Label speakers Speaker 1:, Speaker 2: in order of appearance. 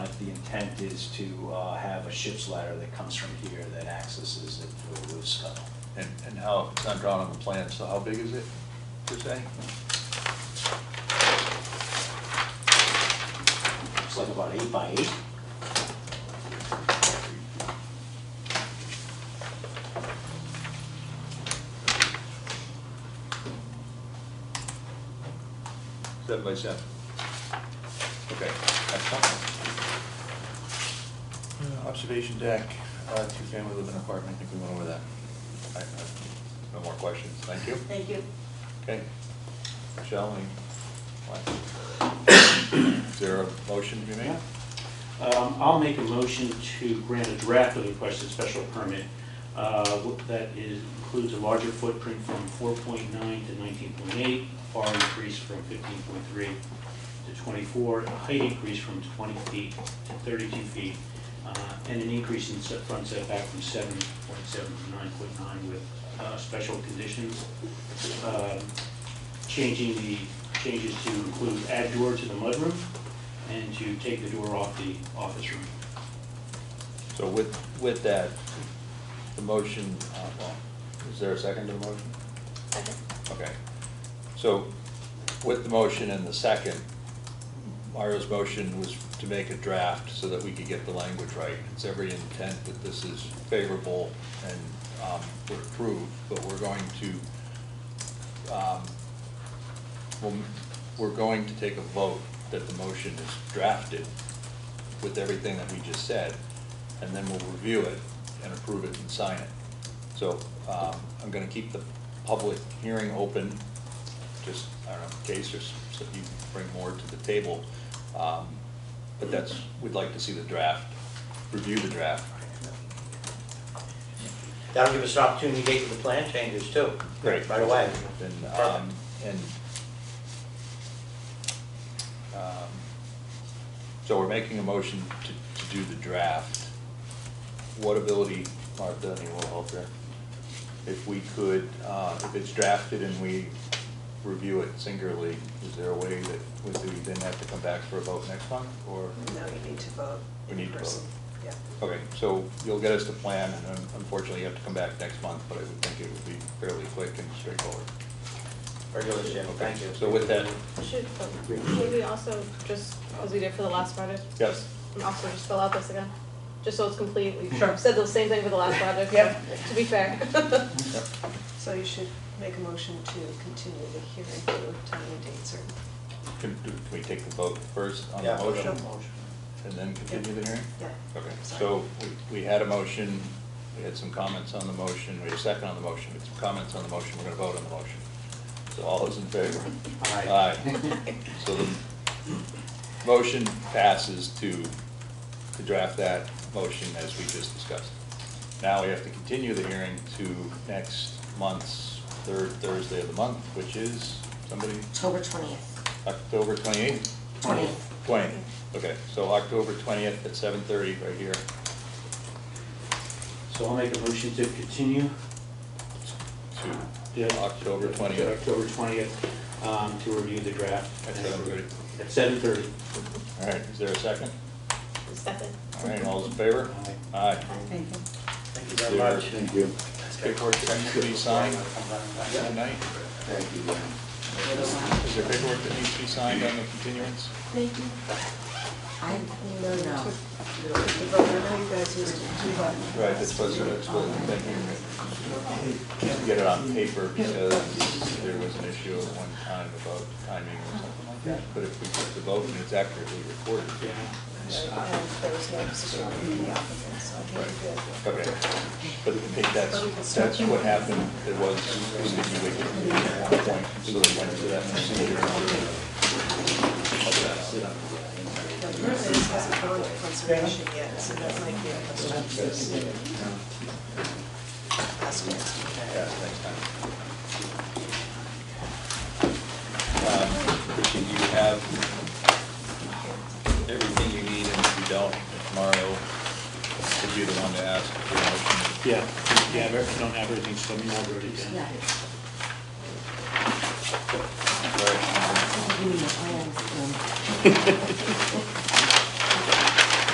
Speaker 1: intent is to uh, have a ship's ladder that comes from here that accesses it to a roof scuttle.
Speaker 2: And, and how, it's not drawn on the plan, so how big is it, per se?
Speaker 1: It's like about eight by eight.
Speaker 2: Seven by seven? Okay, that's something. Uh, Observation deck, uh, two-family living apartment, I think we went over that. I- I- No more questions, thank you.
Speaker 3: Thank you.
Speaker 2: Okay. Michelle, any? what? Is there a motion to be made?
Speaker 4: Um, I'll make a motion to grant a draft of the requested special permit uh, wh- that is, includes a larger footprint from 4.9 to 19.8, bar increase from 15.3 to 24, a height increase from 20 feet to 32 feet, uh, and an increase in set- front setback from 7.7 to 9.9 with uh, special conditions. Um, Changing the, changes to include add door to the mudroom, and to take the door off the office room.
Speaker 2: So with, with that, the motion, uh, well, is there a second to the motion?
Speaker 3: Second.
Speaker 2: Okay. So with the motion and the second, Mario's motion was to make a draft so that we could get the language right. It's every intent that this is favorable and um, would approve, but we're going to, um, we'll- we're going to take a vote that the motion is drafted with everything that we just said, and then we'll review it and approve it and sign it. So um, I'm going to keep the public hearing open, just, I don't know, in case there's, so you bring more to the table. Um, But that's, we'd like to see the draft, review the draft.
Speaker 5: That'll give us an opportunity to get to the plan changes too. Right away.
Speaker 2: And, um,
Speaker 5: Perfect.
Speaker 2: and, um, so we're making a motion to, to do the draft. What ability, Martha, any will help here? If we could, uh, if it's drafted and we review it singularly, is there a way that, would we then have to come back for a vote next month, or?
Speaker 6: No, you need to vote.
Speaker 2: We need to
Speaker 6: in person. Yeah.
Speaker 2: Okay, so you'll get us the plan, and un- unfortunately, you have to come back next month, but I would think it would be fairly quick and straightforward.
Speaker 5: Regular Jim, thank you.
Speaker 2: So with that,
Speaker 7: Should, should we also just, as we did for the last project?
Speaker 2: Yes.
Speaker 7: and Also just fill out this again, just so it's complete, we said the same thing for the last project, so,
Speaker 6: Yep.
Speaker 7: to be fair.
Speaker 6: So you should make a motion to continue the hearing to time and date certain.
Speaker 2: Can, do- can we take the vote first on the
Speaker 5: Yeah,
Speaker 2: motion?
Speaker 6: sure.
Speaker 2: And then continue the hearing?
Speaker 6: Yeah.
Speaker 2: Okay,
Speaker 6: Sorry.
Speaker 2: so we, we had a motion, we had some comments on the motion, we had a second on the motion, we had some comments on the motion, we're gonna vote on the motion. So all those in favor?
Speaker 4: Aye.
Speaker 2: Aye. So the motion passes to, to draft that motion as we just discussed. Now we have to continue the hearing to next month's third Thursday of the month, which is, somebody?
Speaker 8: October twentieth.
Speaker 2: October twenty-eighth?
Speaker 8: Twentieth.
Speaker 2: Twentieth, okay, so October twentieth at seven thirty right here.
Speaker 4: So I'll make a motion to continue.
Speaker 2: to
Speaker 4: the-
Speaker 2: October
Speaker 4: to
Speaker 2: 20th.
Speaker 4: October twentieth, um, to review the draft.
Speaker 2: At 7:30.
Speaker 4: At seven thirty.
Speaker 2: All right, is there a second?
Speaker 7: Second.
Speaker 2: All right, all those in favor?
Speaker 4: Aye.
Speaker 2: Aye.
Speaker 5: Thank you very much.
Speaker 2: Thank you. Paperwork that needs to be signed tonight? Is there paperwork that needs to be signed on the continuance?
Speaker 8: Thank you. I, no, no.
Speaker 6: The vote, I know you guys used to do that.
Speaker 2: Right, that's what, that's what, thank you. Can't get it on paper because there was an issue at one time about timing or something like that. But if we put the vote and it's accurately recorded.
Speaker 4: Yeah.
Speaker 6: And there was no position from the applicant, so I think you're good.
Speaker 2: Okay, but I think that's, that's what happened, it was sticky wicket at one point, so it went to that procedure.
Speaker 6: But apparently this hasn't gone to conservation yet, so that might be a question. for us to Ask next week.
Speaker 2: Yeah, next time. Um, Christian, do you have everything you need, and if you don't, if Mario, would be the one to ask for a motion?
Speaker 4: Yeah, yeah, I don't have everything, so I'm not ready yet.
Speaker 8: Yeah.
Speaker 2: Right.
Speaker 8: Give me your plans, um,